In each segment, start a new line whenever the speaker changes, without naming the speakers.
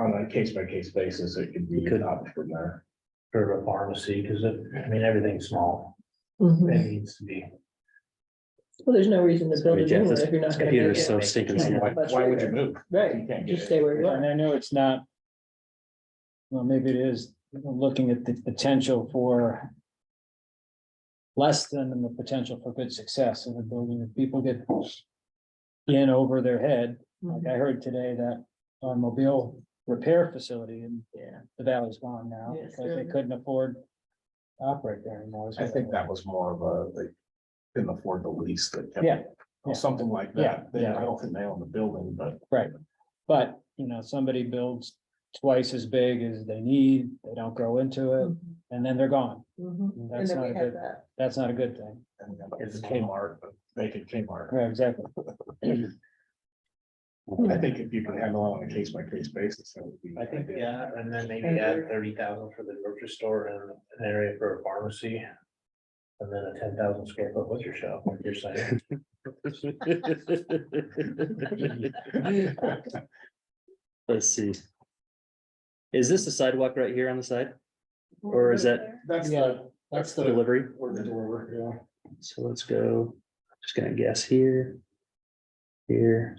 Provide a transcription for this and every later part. a case by case basis, it could be
Could-
up from there.
for a pharmacy, because it, I mean, everything's small,
Well,
it needs to be.
Mm-hmm. there's no reason to build a
Yeah,
new one
this
if you're not gonna
computer
make
is
it.
so stinking
Yeah.
small.
Why why would you move? You
Right,
can't get
just
it.
stay where you
And
are.
I know it's not. Well, maybe it is looking at the potential for. Less than the potential for good success in the building. If people get. In over their head,
Mm-hmm.
like I heard today that automobile repair facility in
Yeah.
the valley's gone now
Yes,
because they
really.
couldn't afford. to Operate there anymore.
I think that was more of a, like, couldn't afford the lease that. kept-
Yeah.
Or something like
Yeah,
that. They, I
yeah.
don't think they own the building, but
But, you know, somebody builds twice as big as they need, they don't grow into it,
Mhm,
and then they're gone.
mhm. And
That's
then
not
we
a
had
good,
that.
that's not a good thing.
and it's Kmart, but they could Kmart.
Right, exactly.
Hmm.
I think if you can handle it on a case by case basis, that would be.
I think,
ideal.
yeah, and then maybe add thirty thousand for the grocery store and an area for a pharmacy. And then a ten thousand square foot butcher shop, like you're saying.
Let's see. Is this the sidewalk right here on the side? Or is that-
That's the, that's the,
Delivery?
where the door, yeah.
So let's go, just gonna guess here. Here,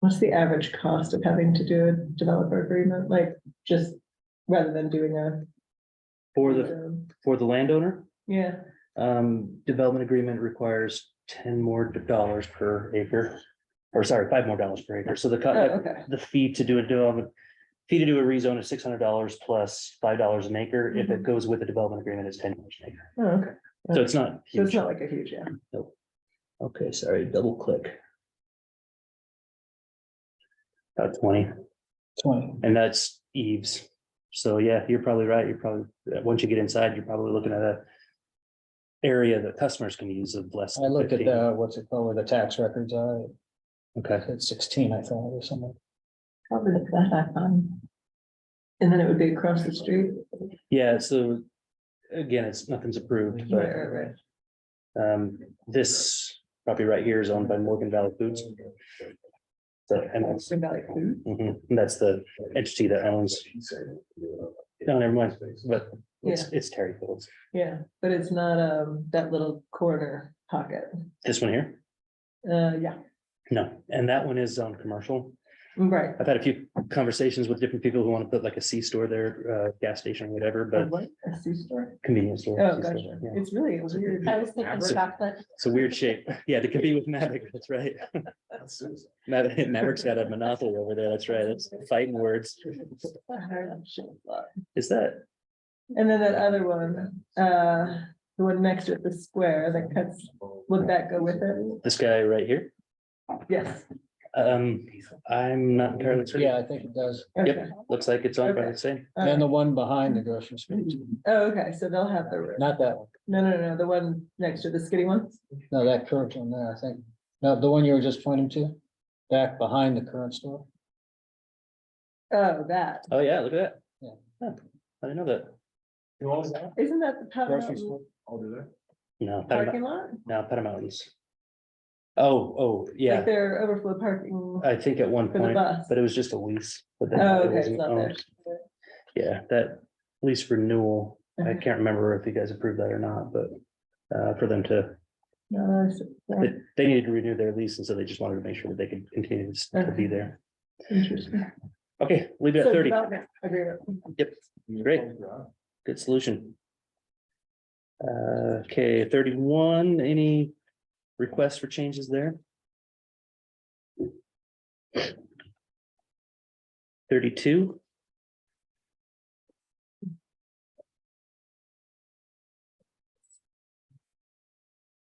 What's the average cost of having to do a developer agreement, like, just rather than doing a.
for the,
um,
for the landowner,
Yeah,
um, development agreement requires ten more dollars per acre. Or sorry, five more dollars per acre, so the,
oh,
co-
okay,
the fee to do a development. Fee to do a rezone is six hundred dollars plus five dollars an acre, if it goes with the development agreement, it's ten dollars an acre,
Oh, okay,
so it's not.
so it's
huge.
not like a huge, yeah.
Okay, sorry, double click. About twenty,
Twenty.
and that's Eves. So yeah, you're probably right. You're probably, uh, once you get inside, you're probably looking at a area that customers can use of less.
I
than
looked at
15.
the, what's it called, where the tax records are,
Okay,
it's sixteen, I thought, or something.
Probably look that up on. And then it would be across the street.
yeah, so again, it's, nothing's approved,
Right,
but
right, right.
um, this property right here is owned by Morgan Valley Foods. So, and that's,
What About like food.
mhm, and that's the entity that owns, no, never mind, but it's, it's Terry Fields.
Yeah, but it's not um that little corner pocket.
This one here?
Uh, yeah,
No, and that one is on commercial.
right.
I've had a few conversations with different people who want to put like a C store there, uh, gas station, whatever,
A
but
what? A C store?
convenience store.
Oh,
C
gotcha.
store, yeah.
It's really weird.
I was thinking Maverick.
chocolate.
It's a weird shape. Yeah, to compete with Maverick, that's right.
That's Susan.
Maver- Maverick's got a monopoly over there, that's right. It's fighting words.
And
Is that,
then that other one, uh, the one next to it, the square that cuts, would that go with it?
this guy right here?
Yes.
Um, I'm not entirely certain.
Yeah, I think it does.
Okay.
Looks like it's on by
Mm-hmm. Okay.
the same.
All
And the
right.
one behind the grocery store,
Oh, okay, so they'll have the, room.
not that one,
no, no, no, the one next to the skinny one?
no, that current one there, I think. No, the one you were just pointing to, back behind the current store.
Oh, that.
Oh, yeah, look at
Yeah.
that. Huh, I didn't know that.
Who owns that?
Isn't that the Powder
Grocery
Mountain
store.
Oh, do they?
No, Powder Mou-
parking lot?
no, Powder Mountains. Oh, oh,
Like
yeah,
their overflow parking
I think at one
for the
point.
bus.
But it was just a lease. but then
Oh,
it
okay, it's
wasn't
not there.
owned. Yeah, that lease renewal, I
Okay.
can't remember if you guys approved that or not, but uh, for them to,
No, that's-
they-
that's
they needed to renew their lease, and so they just wanted to make sure that they could continue to s- to
Okay.
be there.
interesting.
Okay, leave it
Mm-hmm. So
at thirty.
development agreement.
Yep, Great. good solution. Uh, okay, thirty-one, any requests for changes there? Thirty-two?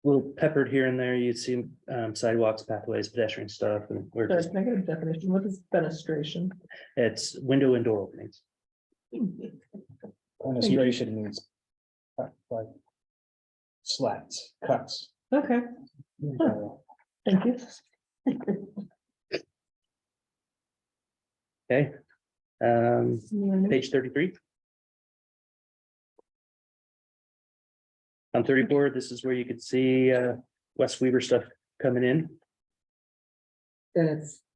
Little peppered here and there, you'd see um, sidewalks, pathways, pedestrian stuff, and we're
So
just,
it's negative definition. What is fenestration?
it's window and door openings.
Administration means. uh, like Slats, cuts.
Okay, thank you.
Okay. Um,
Well,
page thirty-three. On thirty-four, this is where you could see uh West Weaver stuff coming in.
Then it's